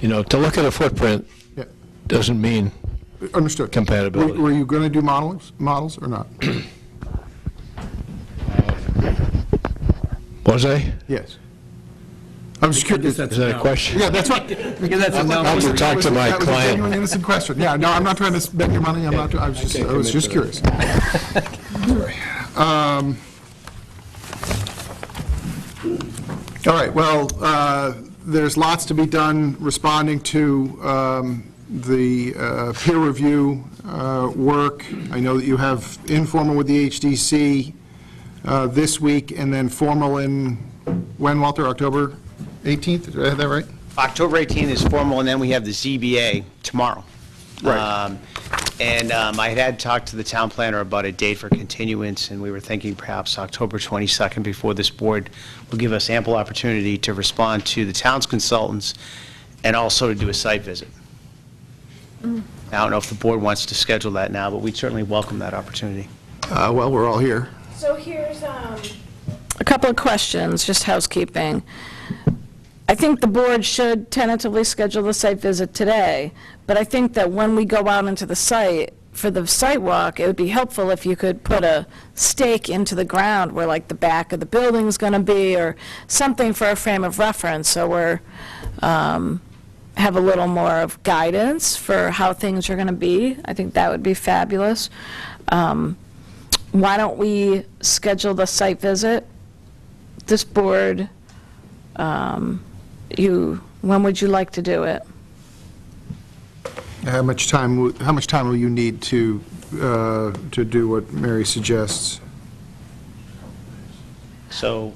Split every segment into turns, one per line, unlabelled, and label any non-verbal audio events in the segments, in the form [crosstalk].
You know, to look at a footprint
Yeah,
doesn't mean,
Understood.
Compatibility.
Were were you going to do models, models or not?
was I?
Yes. I'm just curious.
Is that a question?
Yeah, that's right.
that's a no.
I'll have to talk to my
That was a genuine
client.
innocent question. Yeah, no, I'm not trying to spend your money, I'm not, I was just, I was just
[laughs]
curious. Um, All right, well, uh, there's lots to be done responding to um, the uh, peer review uh, work. I know that you have informal with the HDC uh, this week, and then formal in, when, Walter, October 18th? Did I have that right?
October 18th is formal, and then we have the ZBA tomorrow.
Right.
Um, And um, I had talked to the town planner about a date for continuance, and we were thinking perhaps October 22nd before this board will give us ample opportunity to respond to the town's consultants and also to do a site visit. I don't know if the board wants to schedule that now, but we'd certainly welcome that opportunity.
Uh, Well, we're all here.
So here's, um,
A couple of questions, just housekeeping. I think the board should tentatively schedule the site visit today, but I think that when we go out into the site, for the site walk, it would be helpful if you could put a stake into the ground where like the back of the building's going to be, or something for a frame of reference, so we're, um, have a little more of guidance for how things are going to be. I think that would be fabulous. Um, Why don't we schedule the site visit this board, um, you, when would you like to do it?
How much time, wo- how much time will you need to, uh, to do what Mary suggests?
So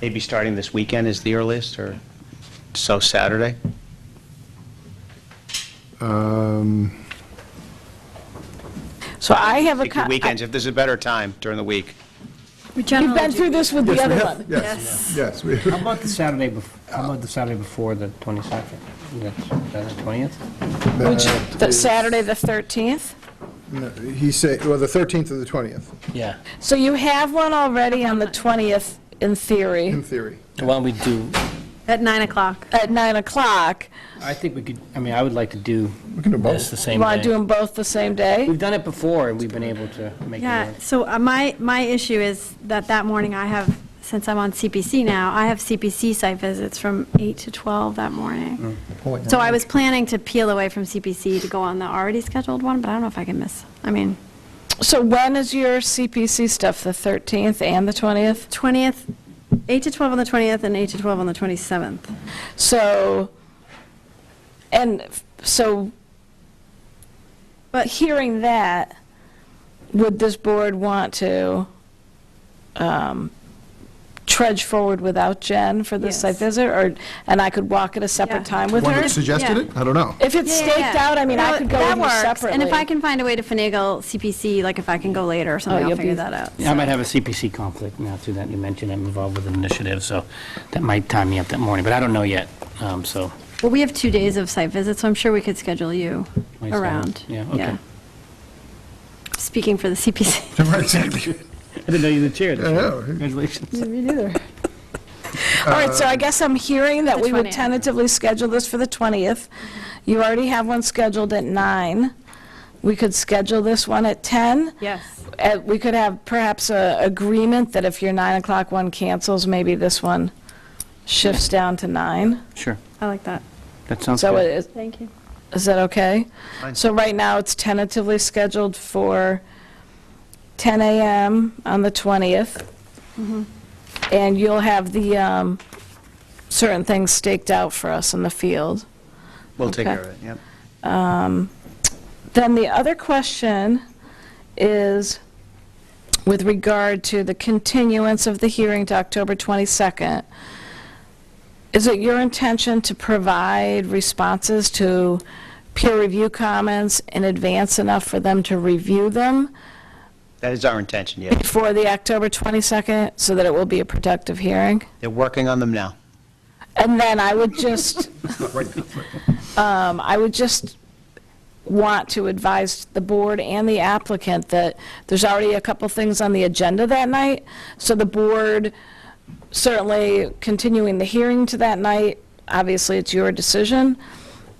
maybe starting this weekend is the earliest, or so Saturday?
Um,
So I have a,
Pick your
co-
Weekends, if there's a better time during the week.
we've been through this with the other one.
Yes, [laughs] yes. we-
How about the Saturday, bef- how about the Saturday before the 22nd? That's- That's the 20th?
that
The
is-
Saturday, the 13th?
no, He said, well, the 13th or the 20th,
Yeah.
So you have one already on the 20th, in
in
theory,
theory.
Why don't we do,
at 9 o'clock.
at 9 o'clock.
I think we could, I mean, I would like to do
We can do both.
this the
You
same
want to do
day.
them both the same day?
We've done it before, and we've been able to make it
Yeah,
work.
so uh, my, my issue is that that morning I have, since I'm on CPC now, I have CPC site visits from 8 to 12 that
Mm.
morning. So I was planning to peel away from CPC to go on the already scheduled one, but I don't know if I can miss, I mean,
So when is your CPC stuff, the 13th and the 20th?
20th, 8 to 12 on the 20th and 8 to 12 on the 27th.
So, and f- so, but hearing that, would this board want to um, trudge forward without Jen for this site
Yes.
visit? Or, and I could walk at a
Yeah.
separate time with
One
her?
that suggested it? I don't know.
If it's
Yeah, yeah,
staked
yeah.
out, I mean, I
No,
could go with
that
you
works.
separately.
And if I can find a way to finagle CPC, like if I can go later or something,
Oh,
I'll
you'll
figure
be-
that out.
Yeah, I might have a CPC conflict now, too, that you mentioned, I'm involved with an initiative, so that might time me up that morning, but I don't know yet, um, so.
Well, we have two days of site visits, so I'm sure we could schedule you
27.
around.
Yeah, okay.
Speaking for the CPC.
Right, Exactly.
I didn't know you were the chair. this
I
year.
know.
Congratulations.
All right, so I guess I'm hearing that
The Mm-hmm.
we would
20th.
tentatively schedule this for the 20th. You already have one scheduled at 9. We could schedule this one at 10.
Yes.
Uh, We could have perhaps a agreement that if your 9 o'clock one cancels, maybe this one shifts down to 9.
Sure,
I like that.
that sounds
So
good.
is
Thank you.
is that okay?
Fine.
So right now, it's tentatively scheduled for 10 a.m. on the 20th.
Mm-hmm.
And you'll have the um, certain things staked out for us in the field.
We'll take
Okay.
care of it, yep.
Then the other question is with regard to the continuance of the hearing to October 22nd. Is it your intention to provide responses to peer review comments in advance enough for them to review them
That is our intention, yes.
before the October 22nd, so that it will be a productive hearing?
They're working on them now.
And then I would just, Um, I would just want to advise the board and the applicant that there's already a couple things on the agenda that night, so the board certainly continuing the hearing to that night, obviously it's your decision,